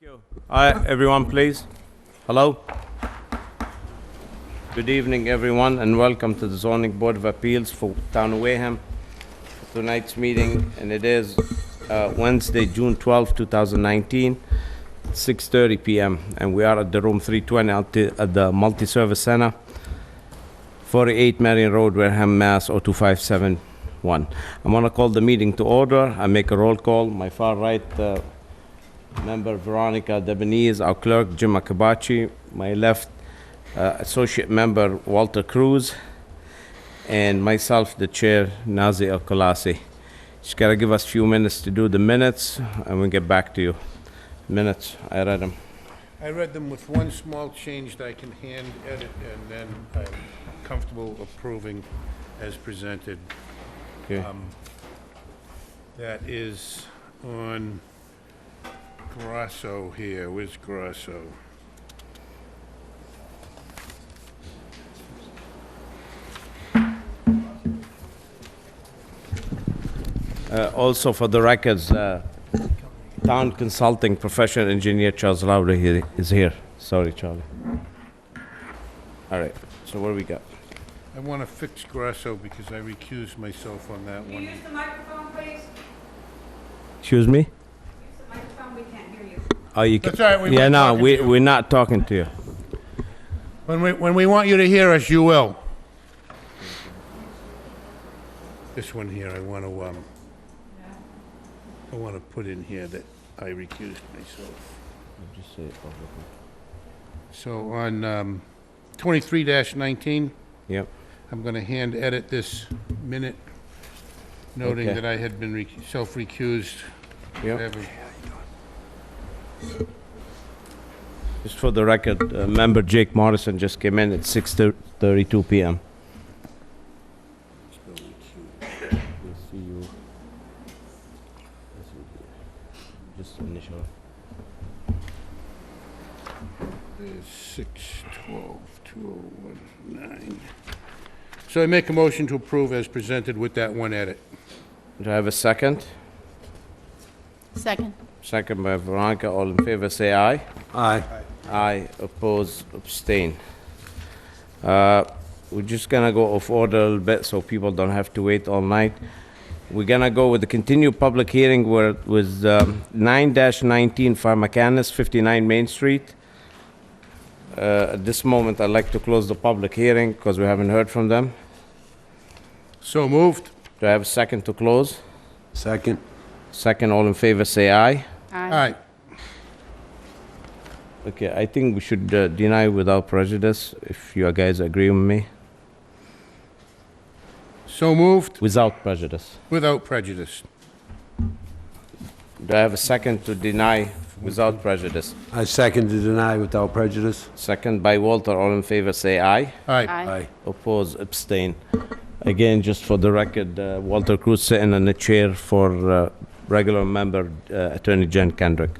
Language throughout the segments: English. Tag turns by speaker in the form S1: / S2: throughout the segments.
S1: you. Hi, everyone, please. Hello? Good evening, everyone, and welcome to the zoning board of appeals for Town of Wareham. Tonight's meeting, and it is uh, Wednesday, June 12, 2019, 6:30 PM, and we are at the room 320 at the- at the Multi-Service Center, 48 Marion Road, Wareham, Mass. 02571. I'm gonna call the meeting to order. I make a roll call. My far right, uh, Member Veronica Debonese, our clerk Jim Akabachi, my left uh, associate member Walter Cruz, and myself, the chair Nazi El Kolasi. Just gotta give us a few minutes to do the minutes, and we'll get back to you. Minutes, I read them.
S2: I read them with one small change that I can hand edit, and then I'm comfortable approving as presented.
S1: Okay.
S2: That is on Grasso here, where's Grasso?
S1: Uh, Also, for the records, uh, town consulting professional engineer Charles Lowry he- is here. Sorry, Charlie. All right, so what do we got?
S2: I want to fix Grasso because I recused myself on that
S3: Can you
S2: one.
S3: use the microphone, please?
S1: Excuse me?
S3: Use the microphone, we can't hear you.
S1: Oh, you can...
S2: That's all right, we
S1: Yeah,
S2: weren't
S1: no,
S2: talking
S1: we,
S2: to you.
S1: we're not talking to you.
S2: When we, when we want you to hear us, you will. This one here, I want to, um, I want to put in here that I recused myself. So on um, 23-19,
S1: Yep,
S2: I'm going to hand edit this minute, noting
S1: Okay.
S2: that I had been rec- self-recused.
S1: yep.
S2: Whatever.
S1: Just for the record, uh, member Jake Morrison just came in at 6:32 PM. Just initial.
S2: There's 6, 12, 201, 9. So I make a motion to approve as presented with that one edit.
S1: Do I have a second?
S4: Second.
S1: Second by Veronica, all in favor, say aye. Aye. Aye, oppose, abstain. Uh, We're just gonna go off order a little bit so people don't have to wait all night. We're gonna go with the continued public hearing where it was um, 9-19 Pharmacanis, 59 Main Street. Uh, At this moment, I'd like to close the public hearing because we haven't heard from them.
S2: So moved?
S1: Do I have a second to close?
S5: Second.
S1: Second, all in favor, say aye.
S2: Aye.
S1: Okay, I think we should uh, deny without prejudice, if you guys agree with me.
S2: So moved,
S1: Without prejudice.
S2: without prejudice.
S1: Do I have a second to deny without prejudice?
S5: I second to deny without prejudice.
S1: Second by Walter, all in favor, say aye.
S2: Aye.
S1: Oppose, abstain. Again, just for the record, uh, Walter Cruz sitting in the chair for uh, regular member uh, Attorney Jen Kendrick.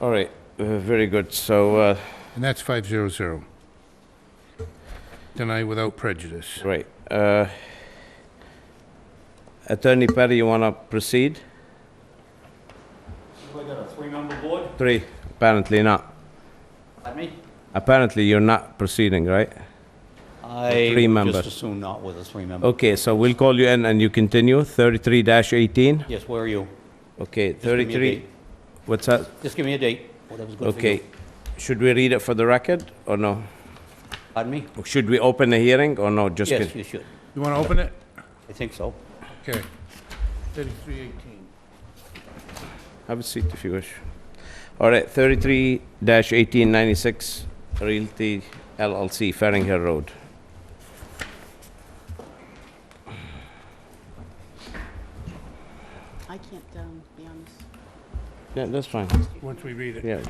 S1: All right, uh, very good, so, uh,
S2: And that's 500. Deny without prejudice.
S1: right. uh, Attorney Perry, you want to proceed?
S6: We got a three-member board?
S1: Three, apparently not.
S6: Pardon me?
S1: Apparently, you're not proceeding, right? Three
S6: I
S1: member.
S6: just assume not with a three-member.
S1: Okay, so we'll call you in and you continue, 33-18?
S6: Yes, where are you?
S1: Okay,
S6: give me a
S1: 33,
S6: date.
S1: what's that?
S6: Just give me a date, whatever's good for you.
S1: Okay, should we read it for the record, or no?
S6: Pardon me?
S1: Should we open the hearing, or no, just?
S6: Yes,
S1: con-
S6: you should.
S2: You want to open it?
S6: I think so.
S2: Okay. 3318.
S1: Have a seat if you wish. All right, 33-1896 Realty LLC, Faring Hill Road.
S4: I can't um, be on this.
S1: Yeah, that's fine,
S2: Once we read it.
S1: yeah,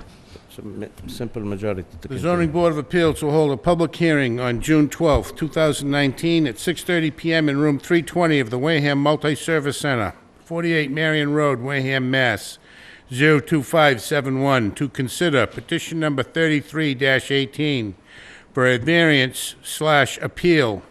S1: it's a mi- simple majority to
S2: The
S1: continue.
S2: zoning board of appeals will hold a public hearing on June 12, 2019, at 6:30 PM in room 320 of the Wareham Multi-Service Center, 48 Marion Road, Wareham, Mass. 02571, to consider petition number 33-18 for a variance slash appeal